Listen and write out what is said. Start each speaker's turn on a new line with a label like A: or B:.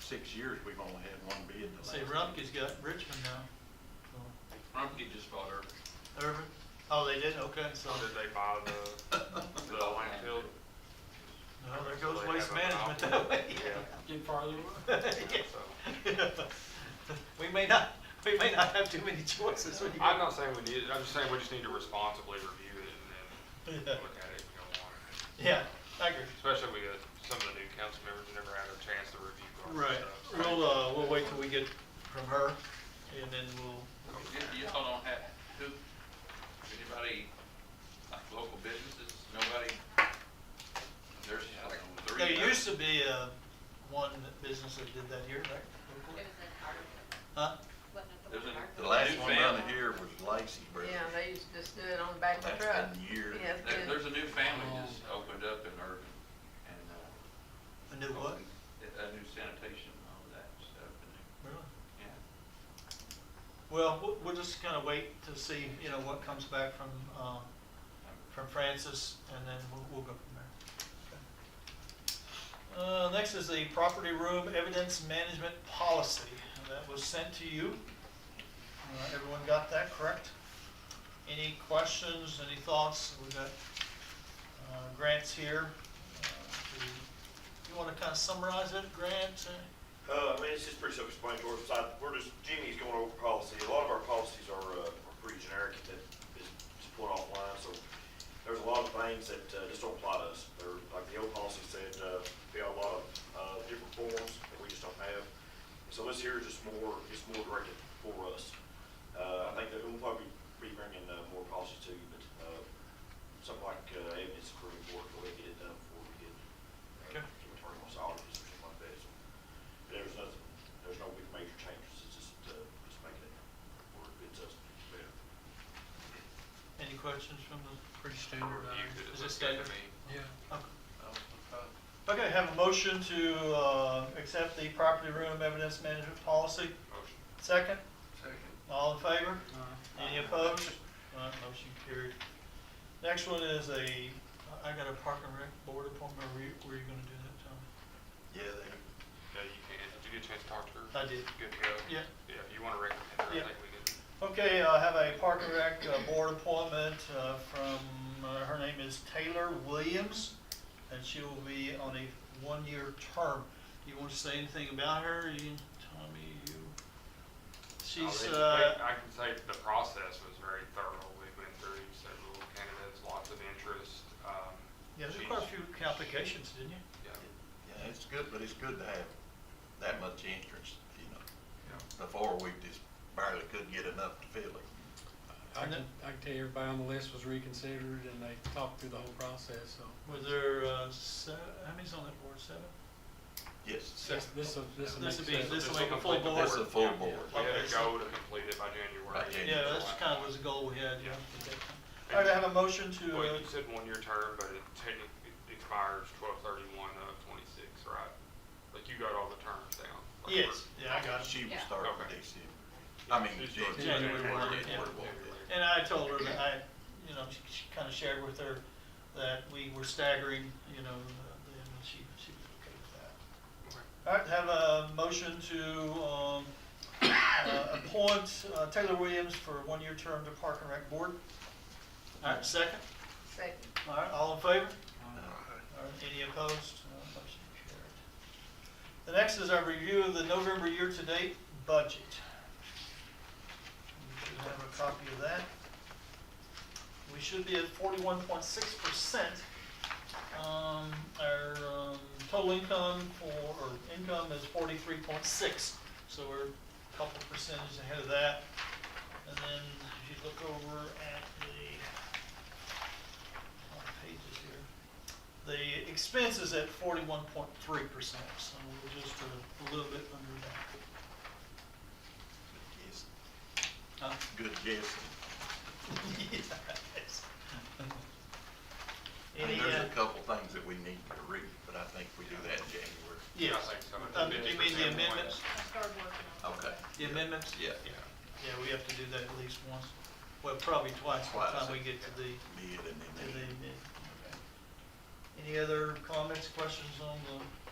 A: six years, we've only had one bid. the
B: See,
A: last-
B: Rumpke's got Richmond now. So,
C: Rumpke just bought Irving.
B: Irvin, oh, they did, okay, so,
D: So did they buy the, the landfill?
B: well, there goes
D: They
B: waste
D: have a
B: management
D: monopoly.
B: that way.
D: Yeah,
E: Get farther away.
D: yeah, so.
B: We may not, we may not have too many choices when you.
D: I'm not saying we need it, I'm just saying we just need to responsibly review it and
B: Yeah.
D: then look at it if we don't want it.
B: Yeah, I agree.
D: Especially with uh, some of the new council members who never had a chance to review all this
B: Right,
D: stuff.
B: we'll, uh, we'll wait till we get from her, and then we'll,
C: Y- Y'all don't have, who, anybody, like local businesses, nobody? There's like three.
B: there
C: of
B: used
C: them.
B: to be, uh, one business that did that here, right?
F: It was an argument,
B: Huh?
F: wasn't it?
C: There's an-
F: Argument.
A: The
C: the
A: last one down
C: Family.
A: here was Lacey Brothers.
G: Yeah, they used to just do it on the back of the truck.
A: That's been years.
G: Yeah, it's
C: There,
G: been-
C: there's a new family just opened up in Irving and, uh.
B: A new what?
C: opened A a new sanitation and all that stuff and,
B: Really?
C: yeah.
B: Well, we'll, we'll just kind of wait to see, you know, what comes back from, um, from Francis, and then we'll, we'll go from there. Uh, next is the property room evidence management policy, and that was sent to you. Uh, everyone got that correct? Any questions, any thoughts? We've got, uh, grants here. Uh, do you- You wanna kind of summarize it, Grant? Uh,
H: Uh, I mean, it's just pretty self-explanatory, besides, we're just, Jimmy's going over policy, a lot of our policies are, uh, are pretty generic, that is just put offline, so there's a lot of things that, uh, just don't apply to us, they're, like the old policy said, uh, we have a lot of, uh, different forms that we just don't have, so this here is just more, it's more directed for us. Uh, I think that we'll probably be bringing, uh, more policies to you, but, uh, something like, uh, evidence for report, we'll get it done before we get,
B: Okay.
H: uh, to attorney wants audit or something like that, so. There's nothing, there's no big major changes, it's just, uh, just making it work, it's just better.
B: any questions from the? uh,
E: Pretty standard.
D: Review it,
B: Is it
D: it looks good
B: standard?
D: to me.
E: Yeah.
B: Okay. Okay, have a motion to uh, accept the property room evidence management policy.
D: Motion.
B: Second,
C: Second.
B: all in favor?
E: Uh,
B: Any opposed? None, motion carried. Next one is a, I got a park and rec board appointment, were you, were you gonna do that, Tom?
A: Yeah,
D: Yeah, you can, did you get a chance to talk to her?
B: I did.
D: Good to go?
B: Yeah.
D: Yeah, if you want to recommend her,
B: Yeah.
D: I think we can.
B: Okay, I have a park and rec uh, board appointment uh, from, uh, her name is Taylor Williams, and she will be on a one-year term. You want to say anything about her, you, Tommy, you? She's,
D: I'll
B: uh,
D: educate- I can say the process was very thorough. We went through several candidates, lots of interest. um,
B: Yeah, there's
D: she's-
B: quite a few applications, didn't you?
D: Yeah,
A: yeah, it's good, but it's good to have that much interest, you know.
D: yeah.
A: Before, we just barely could get enough to fill it.
E: I can, I can tell you everybody on the list was reconsidered and they talked through the whole process, so.
B: Was there, uh, se- how many's on that board, seven?
A: Yes,
E: This, this'll, this'll make
B: This would be,
E: sense.
B: this
D: This
B: will make
D: will
B: a full
D: complete the
B: board.
A: that's a full board.
D: We
B: Okay.
D: had a goal to complete it by January.
A: By January.
B: Yeah, that's kind of was the goal we had, yeah.
D: Yeah.
B: All right, I have a motion to, uh,
D: Well, you said one-year term, but it technically expires twelve thirty-one of twenty-six, right? Like you got all the terms down. like we're-
B: yes, yeah, I got it.
A: she will
F: Yeah.
A: start
D: Okay.
A: in December. I mean,
D: She's
A: January.
B: January
D: starting
B: one,
A: January
B: yeah.
A: one, yeah.
B: And I told her that I, you know, she, she kind of shared with her that we were staggering, you know, uh, then she, she was okay with that. All
D: Okay.
B: right, have a motion to um, uh, appoint uh, Taylor Williams for a one-year term to Park and Rec Board. All right, second.
G: Second.
B: All right, all in favor?
A: Uh,
B: All right, Any opposed? No, motion carried. The next is our review of the November year-to-date budget. We should have a copy of that. We should be at forty-one point six percent. Um, our, um, total income for, or income is forty-three point six, so we're a couple percentage ahead of that. And then if you look over at the, what page is here? The expense is at forty-one point three percent, so we're just a little bit under that.
A: It's
B: Huh?
A: Good guessing.
B: Yes.
A: I mean,
B: Any,
A: there's
B: uh,
A: a couple things that we need to read, but I think we do that in January.
B: yes.
D: I think some of the
B: Uh, You mean
D: 50%
B: the
D: ones.
B: amendments?
F: I started working on it.
A: Okay.
B: The amendments?
A: Yeah.
B: Yeah, Yeah, we have to do that at least once, well, probably twice by the
A: Twice.
B: time we get to the,
A: Bid and
B: to the
A: then.
B: amendment. Any other comments, questions on uh, the